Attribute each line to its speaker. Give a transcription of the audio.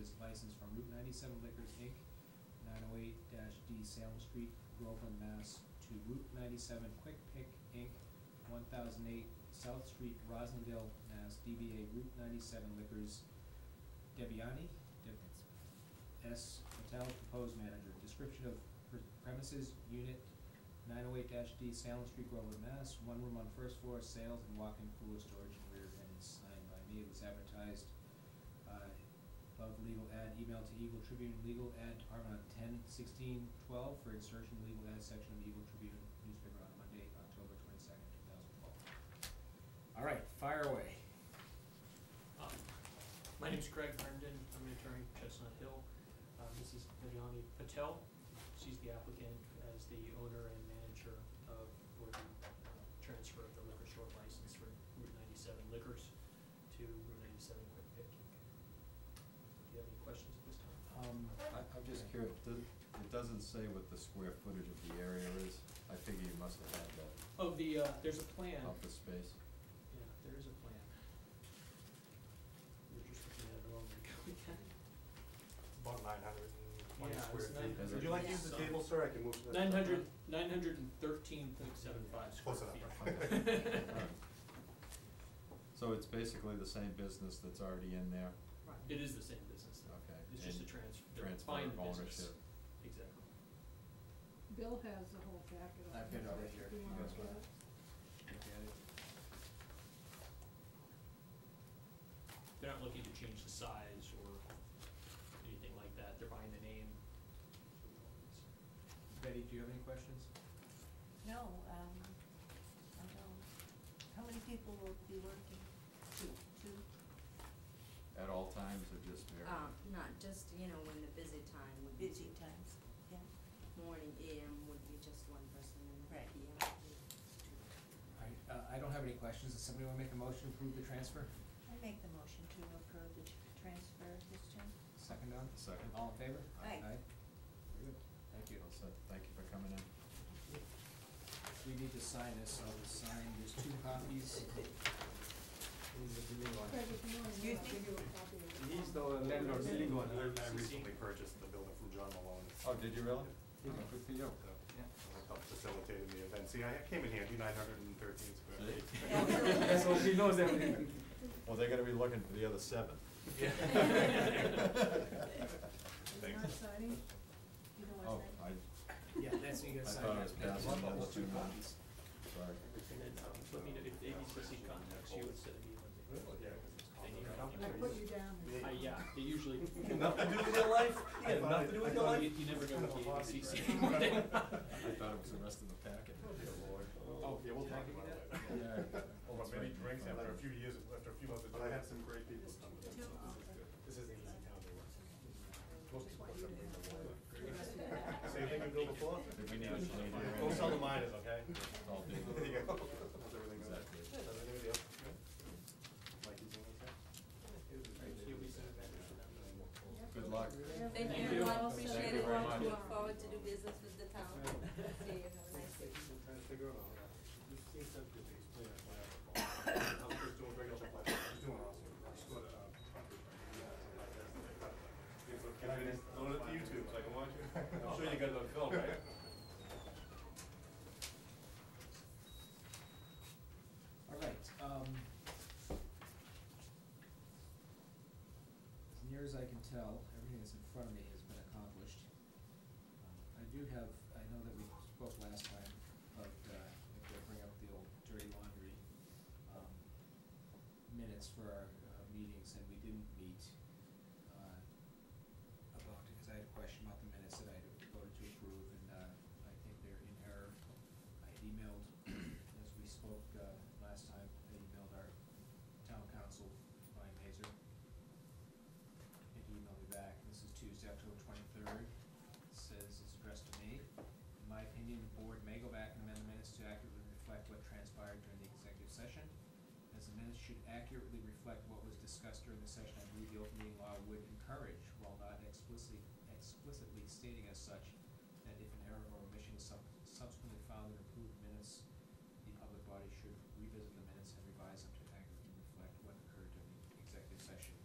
Speaker 1: is licensed from Route ninety-seven Liquors Inc., nine oh eight D Salem Street, Groveland, Mass. to Route ninety-seven Quick Pick Inc., one thousand eight South Street, Rosendale, Mass. DBA Route ninety-seven Liquors, Debiani, Deb- S. Patel, proposed manager. Description of pre- premises, unit nine oh eight D, Salem Street, Groveland, Mass. One room on first floor, sales and walk-in cooler storage and rear end is signed by me. It was advertised, uh, above legal ad, email to Eagle Tribune, legal ad department on ten sixteen twelve for insertion in legal ad section of the Eagle Tribune newspaper on Monday, October twenty-second, two thousand twelve. All right, fire away.
Speaker 2: Um, My name's Craig Herndon, I'm an attorney at Chestnut Hill. Uh, This is Vidyani Patel, she's the applicant as the owner and manager of, for the uh, transfer of the liquor store license for Route ninety-seven Liquors to Route ninety-seven Quick Pick. Do you have any questions at this time?
Speaker 1: Um,
Speaker 3: I, I'm just curious, does, it doesn't say what the square footage of the area is, I figure you must have had that
Speaker 2: Oh, the, uh, there's a plan,
Speaker 3: up the space.
Speaker 2: yeah, there is a plan. We're just looking at it wrong, we're going at it.
Speaker 4: About nine hundred and twenty
Speaker 2: Yeah, it's
Speaker 4: square feet.
Speaker 2: nine-
Speaker 3: Is
Speaker 4: Would
Speaker 3: it-
Speaker 4: you like to use the
Speaker 2: Yeah.
Speaker 4: table, sir? I can move to the.
Speaker 2: Nine hundred, nine hundred and thirteen point seven five square
Speaker 4: Close
Speaker 2: feet.
Speaker 4: enough.
Speaker 3: Alright. So it's basically the same business that's already in there,
Speaker 2: It is the same business though.
Speaker 3: okay?
Speaker 2: It's just a
Speaker 3: and
Speaker 2: transfer, they're
Speaker 3: transfer
Speaker 2: buying
Speaker 3: of
Speaker 2: the business.
Speaker 3: ownership.
Speaker 2: Exactly.
Speaker 5: Bill has the whole packet.
Speaker 1: I've got it right here,
Speaker 5: Do
Speaker 1: if
Speaker 5: you
Speaker 1: you
Speaker 5: want
Speaker 1: guys
Speaker 5: to
Speaker 1: want.
Speaker 5: look at it?
Speaker 2: They're not looking to change the size or anything like that, they're buying the name.
Speaker 1: Betty, do you have any questions?
Speaker 6: No, um, I don't. How many people will be working? Two, two?
Speaker 3: At all times or just there?
Speaker 7: Um, not just, you know, when the busy time would be.
Speaker 6: Busy times, yeah.
Speaker 7: Morning AM would be just one person and
Speaker 6: Right.
Speaker 7: PM would be two.
Speaker 1: All right, uh, I don't have any questions. Does somebody wanna make a motion to approve the transfer?
Speaker 6: I make the motion to approve the tr- transfer this time.
Speaker 1: Second on?
Speaker 3: Second.
Speaker 1: All in favor?
Speaker 6: Aye.
Speaker 1: Very good. Thank you.
Speaker 3: All set. thank you for coming in.
Speaker 1: We need to sign this, so I'll sign, there's two copies.
Speaker 5: Craig, if you want, I'll
Speaker 6: Excuse me?
Speaker 5: give you a copy of it.
Speaker 2: landlord's legal
Speaker 4: I,
Speaker 2: one.
Speaker 4: I recently purchased the building from John Malone.
Speaker 3: Oh, did you really?
Speaker 4: Yeah.
Speaker 3: Oh, Good for you.
Speaker 4: So, it Helped facilitated the event. See, I came in handy, nine hundred and thirteen square
Speaker 3: See?
Speaker 4: feet.
Speaker 6: Yeah.
Speaker 4: So she knows
Speaker 6: everything.
Speaker 3: Well, they're gonna be looking for the other seven.
Speaker 4: Yeah.
Speaker 5: You're
Speaker 4: Thanks.
Speaker 5: not signing?
Speaker 6: You know
Speaker 3: Oh,
Speaker 6: what's
Speaker 3: I,
Speaker 6: that?
Speaker 1: Yeah, that's, you gotta
Speaker 3: I
Speaker 1: sign.
Speaker 3: thought
Speaker 1: that.
Speaker 3: it was
Speaker 1: There's
Speaker 3: passing,
Speaker 1: one,
Speaker 3: I
Speaker 1: there's
Speaker 3: let you
Speaker 1: two
Speaker 3: know.
Speaker 1: copies.
Speaker 3: sorry.
Speaker 2: And then, um, let me know if ABC contacts you instead of you. They need to
Speaker 5: I
Speaker 2: contact
Speaker 5: put
Speaker 2: you.
Speaker 5: you down.
Speaker 2: Uh, yeah, they usually.
Speaker 4: Nothing to do with your life? You have nothing to do with your
Speaker 2: You,
Speaker 4: life?
Speaker 2: you never go
Speaker 4: Kind of a
Speaker 2: with the
Speaker 4: philosophy,
Speaker 2: ABC.
Speaker 4: right?
Speaker 3: I thought it was the rest of the packet.
Speaker 4: Oh, yeah, we'll talk about it.
Speaker 3: Yeah.
Speaker 4: Well,
Speaker 3: That's
Speaker 4: many
Speaker 3: right.
Speaker 4: drinks
Speaker 3: Right.
Speaker 4: after a few years, after a few months. But I had some great people come with us, so this is good. This isn't easy town to work. Most people are suffering from that. Same thing we built before?
Speaker 3: Did we need to change our-
Speaker 4: Go sell the miners, okay?
Speaker 3: All day.
Speaker 4: There you go. How's everything going?
Speaker 3: Exactly.
Speaker 4: How's everything with you? Mike, you doing okay?
Speaker 2: You'll be sent back to them.
Speaker 3: Good luck.
Speaker 7: Thank
Speaker 2: Thank
Speaker 7: you,
Speaker 2: you.
Speaker 7: I
Speaker 3: Thank you
Speaker 7: appreciate it,
Speaker 3: very
Speaker 7: want to
Speaker 3: much.
Speaker 7: look forward to do business with the town. See you, have a nice day.
Speaker 4: I'm trying to figure out all that. This seems to be explained as why I was just doing regular stuff like that. I was doing awesome. I just go to, um, Can I just load it to YouTube so I can watch it? I'm sure you got it on film, right?
Speaker 1: All right, um. As near as I can tell, everything that's in front of me has been accomplished. Um, I do have, I know that we spoke last time about, uh, if we bring up the old dirty laundry, um, minutes for our, uh, meetings, and we didn't meet, uh, about, because I had a question about the minutes that I voted to approve, and, uh, I think they're in error. I had emailed, as we spoke, uh, last time, I emailed our town council, Ryan Hazer. And he emailed me back, and this is Tuesday, October twenty-third, says it's addressed to me. In my opinion, the board may go back and amend the minutes to accurately reflect what transpired during the executive session. As the minutes should accurately reflect what was discussed during the session, I believe the open meeting law would encourage, while not explicitly, explicitly stating as such, that if an error or omission is sub- subsequently found in approved minutes, the public body should revisit the minutes and revise them